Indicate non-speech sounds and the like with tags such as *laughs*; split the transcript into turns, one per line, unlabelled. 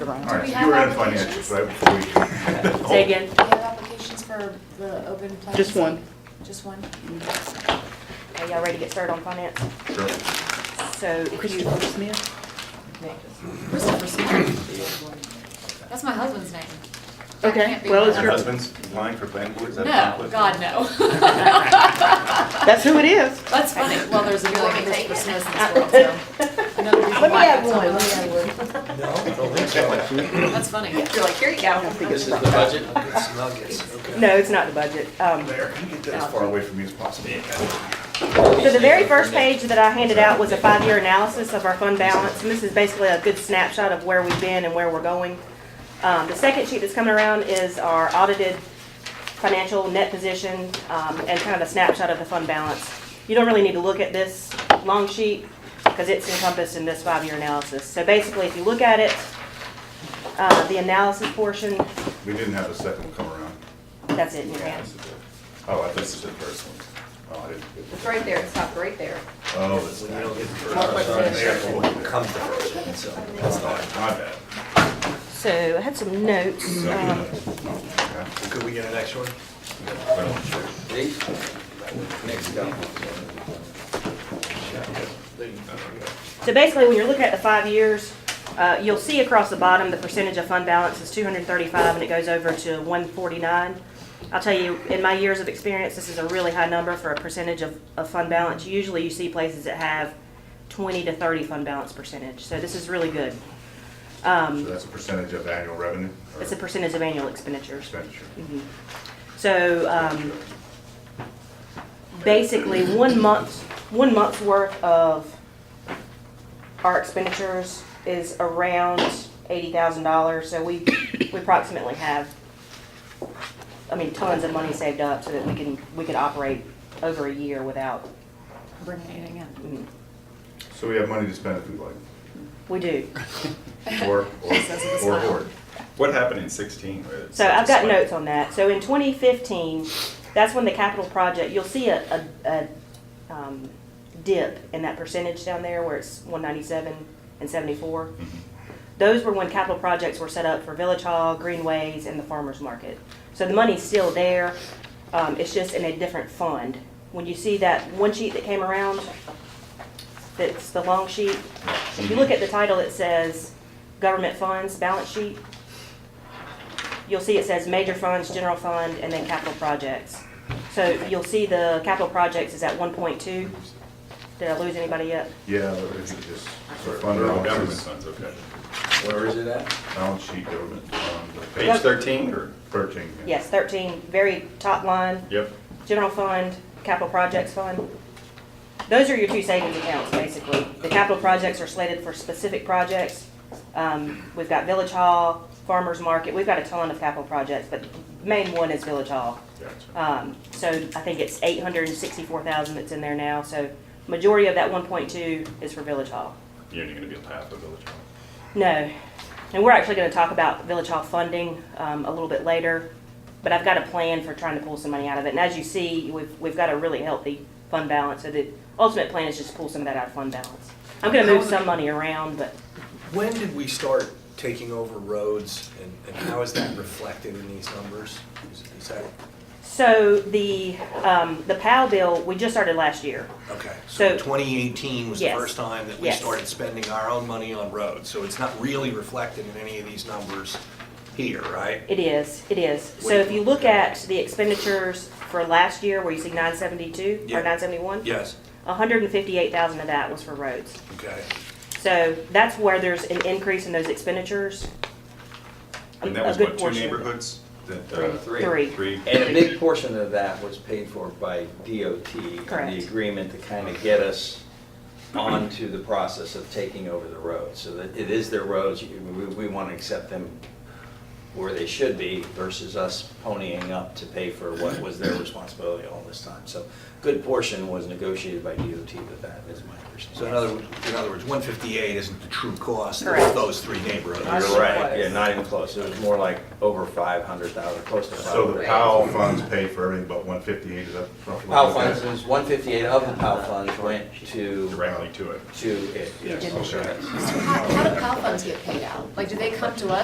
Ryan.
All right, so
we
you
have
were at
applications?
financials, right, before we...
Say again?
Do you have applications for the open plaza?
Just one.
Just one?
Are y'all ready to get started on finance?
Sure.
So if you,
Christopher Smith?
Christopher Smith. That's my husband's name. That
Okay,
can't be
well,
right.
it's
Your
your-
husband's applying for planning board, is that a
No,
conflict? *laughs*
God, no.
That's who it is.
That's funny. Well, there's a
want
million
me to take
Christopher
it?
Smiths in this world,
*laughs*
so. Another reason why it's on the list.
No, I don't think so.
That's funny.
you're like, here you
I don't
go.
think
This is
it's
the budget, *laughs* it's nuggets, okay.
No, it's not the budget. Um,
There, can you get that as far away from me as possible?
So the very first page that I handed out was a five-year analysis of our fund balance, and this is basically a good snapshot of where we've been and where we're going. Um, the second sheet that's coming around is our audited financial net position, um, and kind of a snapshot of the fund balance. You don't really need to look at this long sheet, because it's encompassed in this five-year analysis. So basically, if you look at it, uh, the analysis portion,
We didn't have a second one come around.
that's it in your hand.
Yes, it did. Oh, I thought you said first one. Oh, I didn't.
It's right there, it's not right there.
Oh, that's
When you don't
not.
get the
Conflict of
first,
interest.
one, it comes the first, one, so that's all right.
My bad.
So I had some notes. um,
Okay.
Could we get an extra one?
Well, sure.
Please? Next down. There you go.
So basically, when you're looking at the five years, uh, you'll see across the bottom, the percentage of fund balance is 235, and it goes over to 149. I'll tell you, in my years of experience, this is a really high number for a percentage of, of fund balance. Usually, you see places that have 20 to 30 fund balance percentage, so this is really good.
So
Um,
that's a percentage of annual revenue? or
It's a percentage of annual expenditures.
Expenditure.
So um, basically, one month, one month's worth of our expenditures is around eighty thousand dollars, so we, we approximately have, I mean, tons of money saved up so that we can, we could operate over a year without,
Bring anything in.
mm,
So we have money to spend if we like,
we do.
or, or,
Says with a
or,
smile.
or.
What happened in sixteen? where it's
So
just
I've got
like-
notes on that. So in 2015, that's when the capital project, you'll see a, a, a um, dip in that percentage down there where it's 197 and 74.
Mm-hmm.
Mm-hmm.
Those were when capital projects were set up for Village Hall, Greenways, and the farmer's market. So the money's still there, um, it's just in a different fund. When you see that one sheet that came around, that's the long sheet, if you look at the title, it says Government Funds Balance Sheet you'll see it says major funds, general fund, and then capital projects. So you'll see the capital projects is at one point two. Did I lose anybody yet?
Yeah, but if you just,
Or
sort of under
or government
balances,
funds, okay.
Where is it at?
balance sheet, government, um,
Page thirteen or?
purchasing.
Yes, thirteen, very top line,
Yep.
general fund, capital projects fund. Those are your two savings accounts, basically. The capital projects are slated for specific projects. Um, we've got Village Hall, Farmers Market, we've got a ton of capital projects, but the main one is Village Hall.
Gotcha.
Um, so I think it's eight hundred and sixty-four thousand that's in there now, so majority of that one point two is for Village Hall.
You're only gonna be on half of Village Hall.
No, and we're actually gonna talk about Village Hall funding, um, a little bit later, but I've got a plan for trying to pull some money out of it, and as you see, we've, we've got a really healthy fund balance, so the ultimate plan is just to pull some of that out of fund balance. I'm gonna move some money around, but
When did we start taking over roads and, and how is that reflected in these numbers? Is is that,
So the, um, the POW bill, we just started last year.
okay,
So-
so twenty eighteen was the
Yes.
first time that we
Yes.
started spending our own money on roads, so it's not really reflected in any of these numbers here, right?
It is, it is. So if you look at the expenditures for last year, where you see nine seventy-two
Yeah.
or nine seventy-one?
Yes,
hundred and fifty-eight thousand of that was for roads.
okay.
So that's where there's an increase in those expenditures. A-
And
a
that was
good
what, two
portion of it.
neighborhoods? That,
Three.
uh,
Three.
Three.
And a big portion of that was paid for by DOT. and
Correct.
The agreement to kind of get us onto the process of taking over the roads, so that it is their roads, you- we, we want to accept them where they should be versus us ponying up to pay for what was their responsibility all this time. So good portion was negotiated by DOT, but that is my understanding.
So in other, in other words, 158 isn't the true cost
Correct.
of those three neighborhoods.
You're right, yeah, not even close. It was more like over 500,000, close to
So the
500,000.
POW funds pay for everything but one fifty-eight, is that roughly?
POW
what that-
funds, was 158 of the POW funds went to,
directly to it.
to it, yes.
Okay.
How, how do PAL funds get paid out? Like, do they come to us